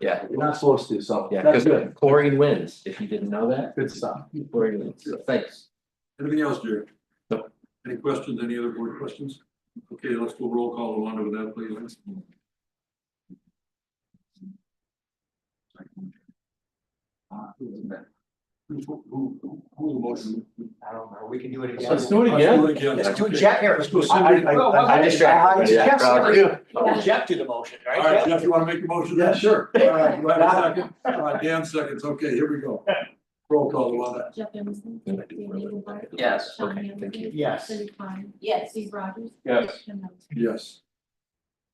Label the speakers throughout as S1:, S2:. S1: Yeah,
S2: You're not supposed to, so
S1: yeah,
S2: that's
S1: because
S2: good,
S1: chlorine wins, if you didn't know that,
S2: good stuff.
S1: chlorine wins, So thanks.
S3: Anything else, Jerry?
S1: No.
S3: Any questions, any other board questions? Okay, let's do a roll call along with that, please. Who, who, who, who motion?
S4: I don't know, we can do it again.
S2: Let's do it again.
S3: Let's do it again.
S4: Let's do it,
S3: Okay.
S4: Jeff, here.
S3: Let's go,
S4: I-
S3: Cindy.
S4: I-
S3: All
S4: I- I-
S1: distracted.
S4: I-
S1: Yeah,
S4: Jeff,
S1: probably.
S4: sorry. Jeff did the motion,
S3: right,
S4: right? Jeff?
S3: Jeff, you wanna make a motion?
S2: Yeah, sure.
S3: All right, do I have a second? All right, Dan seconds, okay, here we go. Roll call Alana.
S5: Jeff Emerson.
S1: Yeah.
S5: Dave Eaglemeyer.
S1: Yes,
S5: Sean
S1: okay, thank
S5: Hamilton,
S1: you.
S4: Yes.
S5: Cindy Klein. Yes. Steve Rogers.
S2: Yes.
S5: Jim Miller.
S3: Yes.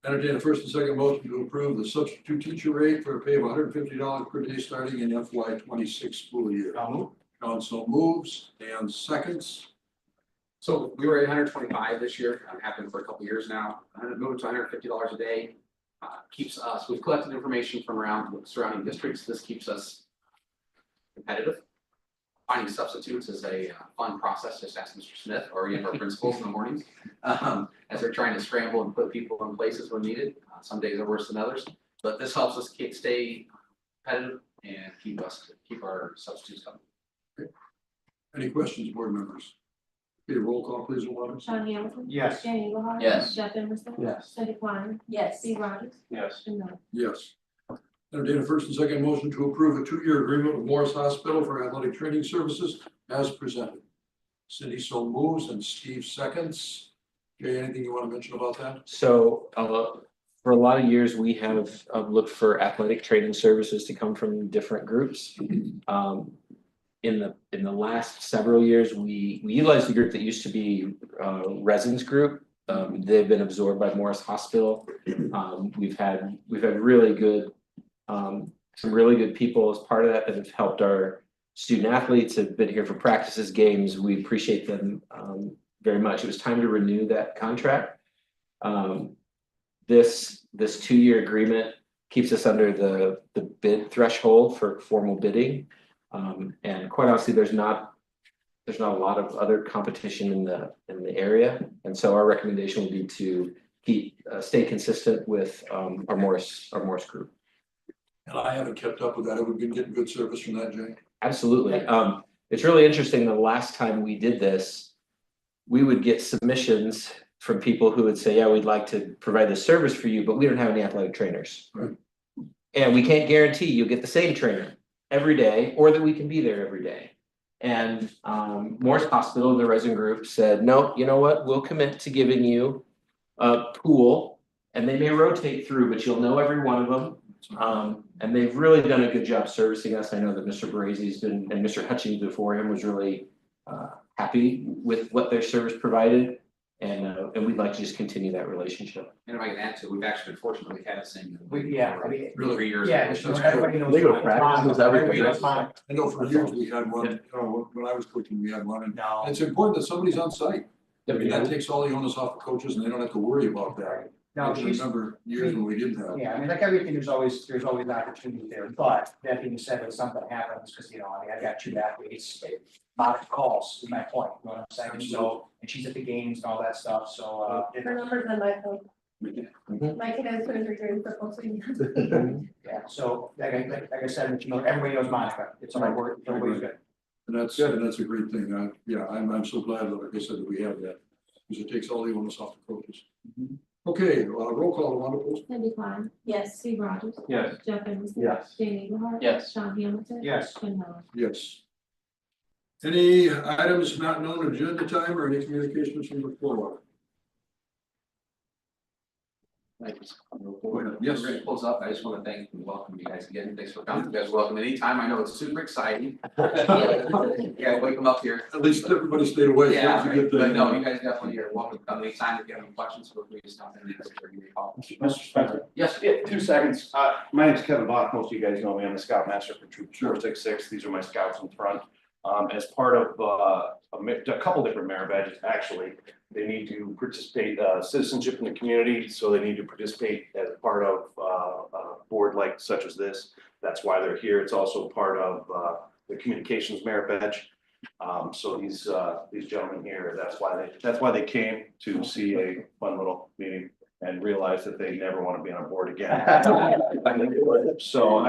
S3: Entertain a first and second motion to approve the substitute teacher rate for a pay of hundred and fifty dollars per day starting in FY twenty-six school year. Council moves, Dan seconds.
S6: So we were at hundred twenty-five this year, uh, happened for a couple years now, hundred, moved to hundred fifty dollars a day. Uh, keeps us, we've collected information from around surrounding districts, this keeps us competitive. Finding substitutes is a uh, fun process, just ask Mr. Smith or any of our principals in the mornings. Um, as they're trying to scramble and put people in places when needed, Uh, some days are worse than others, but this helps us keep, stay competitive and keep us, keep our substitutes coming.
S3: Any questions, board members? Okay, roll call please, Alana.
S5: Sean Hamilton.
S4: Yes.
S5: Dan Eaglemeyer.
S1: Yes.
S5: Jeff Emerson.
S2: Yes.
S5: Cindy Klein. Yes. Steve Rogers.
S2: Yes.
S5: Jim Miller.
S3: Yes. Entertain a first and second motion to approve a two-year agreement with Morris Hospital for athletic training services as presented. Cindy so moves and Steve seconds. Jay, anything you want to mention about that?
S1: So uh for a lot of years, we have um looked for athletic training services to come from different groups. Um in the in the last several years, we we utilized the group that used to be uh Resins Group. Um they've been absorbed by Morris Hospital. Um we've had, we've had really good um some really good people as part of that that have helped our student athletes have been here for practices, games. We appreciate them um very much. It was time to renew that contract. Um, this, this two-year agreement keeps us under the, the bid threshold for formal bidding. Um, and quite honestly, there's not, there's not a lot of other competition in the, in the area. And so our recommendation would be to keep, uh, stay consistent with, um, our Morris, our Morris group.
S3: And I haven't kept up with that. Have we been getting good service from that, Jay?
S1: Absolutely. Um, it's really interesting. The last time we did this, we would get submissions from people who would say, yeah, we'd like to provide this service for you, but we don't have any athletic trainers.
S3: Right.
S1: And we can't guarantee you'll get the same trainer every day or that we can be there every day. And um, Morris Hospital, the resin group said, no, you know what? We'll commit to giving you a pool and they may rotate through, but you'll know every one of them. Um, and they've really done a good job servicing us. I know that Mr. Brazy's been, and Mr. Hutchings before him was really uh, happy with what their service provided. And, uh, and we'd like to just continue that relationship.
S6: And if I can add to, it, we've actually been fortunate, we've had the same.
S4: We, yeah, I mean,
S3: Really?
S6: Three years.
S4: yeah,
S6: ago.
S4: so everybody knows.
S2: They go to practices, everything.
S4: Everybody knows mine.
S3: I know for years we had one, you know, when I was coaching, we had one. And
S4: No,
S3: it's important that somebody's on site. I mean, that takes all the onus off the coaches and they don't have to worry about that. I
S4: no,
S3: can
S4: she's,
S3: remember years when we didn't have.
S4: yeah, I mean, like everything, there's always, there's always an opportunity there, but that being said, if something happens, because, you know, I mean, I've got two athletes. Modern calls, is my point, you know what I'm saying, so, and she's at the games and all that stuff, so, uh, it-
S7: Her number's on my phone.
S1: Mhm.
S7: My kid has surgery during football, so he has
S4: yeah, so, like I, like like I said, you know, everybody knows Monica, it's all right, we're- everybody's good.
S3: And that's, and that's a great thing. I, yeah, I'm, I'm so glad that, like I said, that we have that. Because it takes all the onus off the coaches.
S4: Mm-hmm.
S3: Okay, uh, roll call, Alana, please.
S5: Cindy Klein. Yes. Steve Rogers.
S2: Yes.
S5: Jeff Emerson.
S2: Yes.
S5: Dan Eaglemeyer.
S1: Yes.
S5: Sean Hamilton.
S4: Yes.
S5: Jim Miller.
S3: Yes. Any items not known agenda time or any communications from the floor?
S6: Thank you.
S3: Go ahead. Yes.
S6: We're gonna close up. I just want to thank and welcome you guys again. Thanks for coming. You guys are welcome anytime. I know it's super exciting. Yeah, wake them up here.
S3: At least everybody stayed away.
S6: Yeah,
S3: Don't forget
S6: but
S3: that.
S6: no, you guys definitely are welcome to come anytime. If you have any questions, feel free to stop in and ask or give me a call.
S8: Mr. Spencer,
S6: Yes,
S8: yeah, two seconds. Uh, my name's Kevin Bach. Most of you guys know me. I'm the scout master for Troop four six six. These are my scouts in front. Um, as part of, uh, a, ma- a couple different merit badges, actually, they need to participate, uh, citizenship in the community. So they need to participate as part of, uh, a board like such as this. That's why they're here. It's also part of, uh, the communications merit badge. Um, so these, uh, these gentlemen here, that's why they, that's why they came to see a fun little meeting and realize that they never want to be on a board again. So